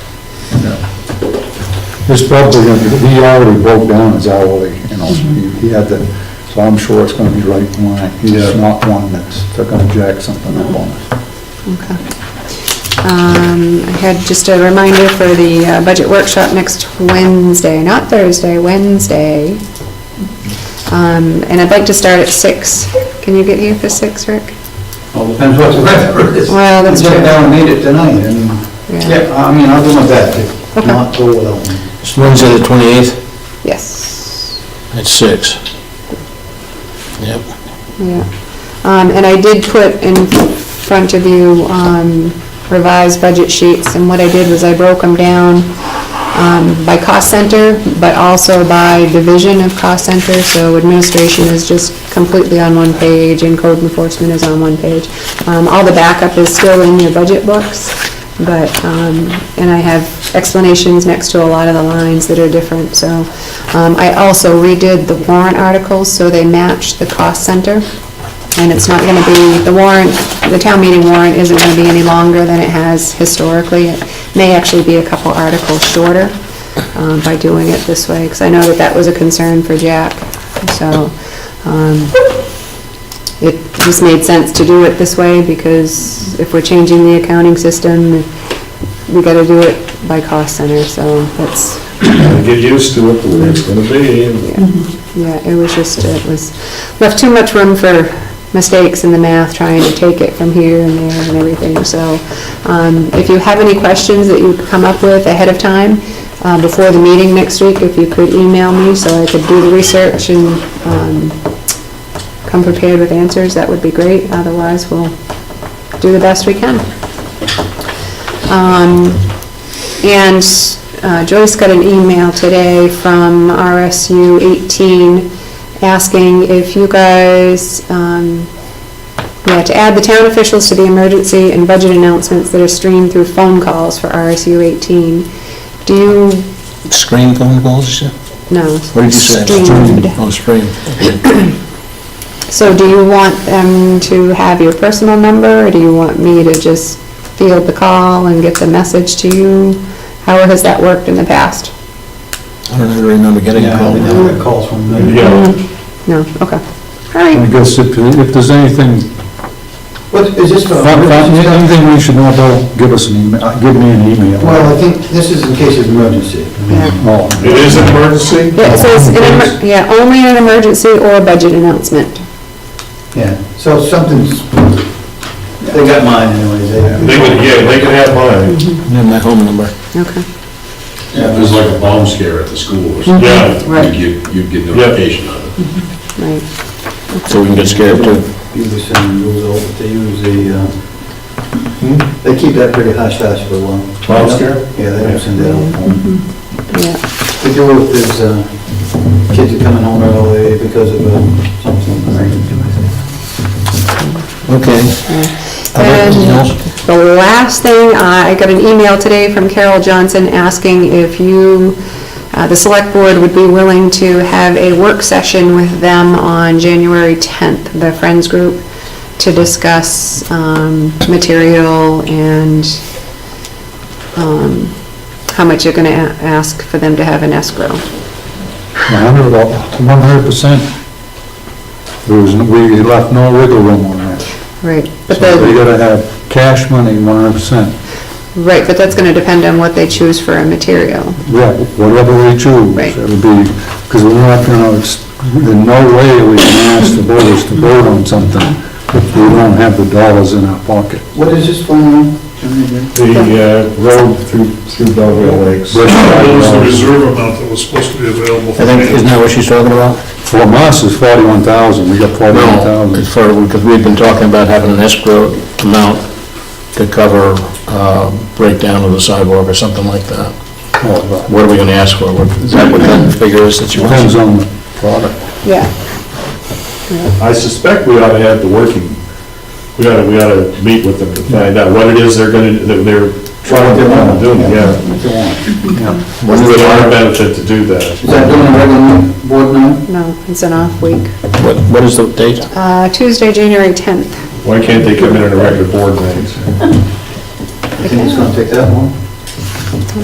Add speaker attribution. Speaker 1: There's probably gonna be, he already broke down his hourly, you know, he he had to, so I'm sure it's gonna be right in line. He's
Speaker 2: Yeah.
Speaker 1: not one that's gonna jack something up on us.
Speaker 3: Okay. Um, I had just a reminder for the uh, budget workshop next Wednesday, not Thursday, Wednesday. Um, And I'd like to start at six. Can you get here for six, Rick?
Speaker 1: All depends what the weather is.
Speaker 3: Well, that's
Speaker 1: I
Speaker 3: true.
Speaker 1: got down and made it tonight, and,
Speaker 3: Yeah.
Speaker 1: yeah, I mean, I'll do my best to not go without me.
Speaker 2: It's Wednesday, the 28th,
Speaker 3: Yes,
Speaker 2: at six. Yep.
Speaker 3: yeah. Um, And I did put in front of you um, revised budget sheets, and what I did was I broke them down um, by cost center, but also by division of cost center, so administration is just completely on one page, and code enforcement is on one page. Um, All the backup is still in your budget books, but, um, and I have explanations next to a lot of the lines that are different, so. um, I also redid the warrant articles, so they match the cost center, and it's not going to be, the warrant, the town meeting warrant isn't going to be any longer than it has historically. It may actually be a couple articles shorter um, by doing it this way, because I know that that was a concern for Jack. So um, it just made sense to do it this way, because if we're changing the accounting system, we got to do it by cost center, so that's
Speaker 4: Get used to it, the way it's gonna be.
Speaker 3: yeah, it was just, it was, left too much room for mistakes in the math, trying to take it from here and there and everything, so um, if you have any questions that you come up with ahead of time, uh, before the meeting next week, if you could email me so I could do the research and um, come prepared with answers, that would be great, otherwise we'll do the best we can. Um, and uh, Joyce got an email today from RSU 18 asking if you guys, um, yeah, to add the town officials to the emergency and budget announcements that are streamed through phone calls for RSU 18. Do you,
Speaker 2: Screen phone calls, you said?
Speaker 3: no.
Speaker 2: What did you say?
Speaker 3: Streamed.
Speaker 2: Oh, screen.
Speaker 3: So do you want them to have your personal number, or do you want me to just field the call and get the message to you? How has that worked in the past?
Speaker 2: I don't even remember getting a
Speaker 1: Yeah,
Speaker 2: call.
Speaker 1: we never get calls from them.
Speaker 4: Yeah,
Speaker 3: No, okay. All right.
Speaker 1: I guess if, if there's anything,
Speaker 5: What, is this for?
Speaker 1: anything we should know about, give us an email, uh, give me an email.
Speaker 5: Well, I think this is in case of emergency.
Speaker 1: Oh,
Speaker 4: it is an emergency.
Speaker 3: Yeah, it says, in emer- yeah, only in an emergency or budget announcement.
Speaker 5: Yeah, so something's, they got mine anyways.
Speaker 4: They would, yeah, they could have mine.
Speaker 2: And then my home number.
Speaker 3: Okay.
Speaker 6: Yeah, if there's like a bomb scare at the school or something,
Speaker 4: Yeah,
Speaker 3: Right.
Speaker 6: you'd, you'd get
Speaker 4: Yep.
Speaker 6: notification on it.
Speaker 3: Right,
Speaker 2: So we can get scared too.
Speaker 5: Beautician rules out, but they use the, uh,
Speaker 1: Hmm?
Speaker 5: they keep that pretty hush-hush for a long.
Speaker 4: Bomb scare?
Speaker 5: Yeah, they don't send that out.
Speaker 1: Mm-hmm.
Speaker 3: yeah,
Speaker 5: They do it if there's, uh, kids are coming home early because of uh, something.
Speaker 2: Okay. Other-
Speaker 3: And-
Speaker 2: anything else?
Speaker 3: The last thing, uh, I got an email today from Carol Johnson asking if you, uh, the select board would be willing to have a work session with them on January 10th, the Friends Group, to discuss um, material and um, how much you're going to ask for them to have in escrow.
Speaker 1: A hundred, one hundred percent. There was, no- we left no wiggle room on that.
Speaker 3: Right.
Speaker 1: So
Speaker 3: But the.
Speaker 1: they gotta have cash money, one hundred percent.
Speaker 3: Right, but that's going to depend on what they choose for a material.
Speaker 1: Yeah, whatever we choose,
Speaker 3: Right.
Speaker 1: it'll be, because we're not gonna, ex- in no way we can ask the voters to vote on something if we don't have the dollars in our pocket.
Speaker 5: What is this phone?
Speaker 4: the uh, road through, through Belvedere Lakes.
Speaker 1: But
Speaker 7: That was the reserve amount that was supposed to be available
Speaker 2: I
Speaker 7: for
Speaker 2: think, isn't
Speaker 7: me.
Speaker 2: that what she's talking about?
Speaker 1: From us, it's forty-one thousand, we got forty-one thousand.
Speaker 2: It's for, because we've been talking about having an escrow amount to cover uh, breakdown of the sidewalk or something like that. What are we gonna ask for? What- Is that what the figure is that you want?
Speaker 1: Depends on the product.
Speaker 3: Yeah.
Speaker 4: I suspect we ought to have the working, we ought to, we ought to meet with them to find out what it is they're gonna, that they're trying to do, yeah. What is it our benefit to do that?
Speaker 5: Is that doing a regular board now?
Speaker 3: No, it's an off week.
Speaker 2: What, what is the date?
Speaker 3: Uh, Tuesday, January 10th.
Speaker 4: Why can't they come in at a regular board meeting?
Speaker 5: You think it's gonna take that long?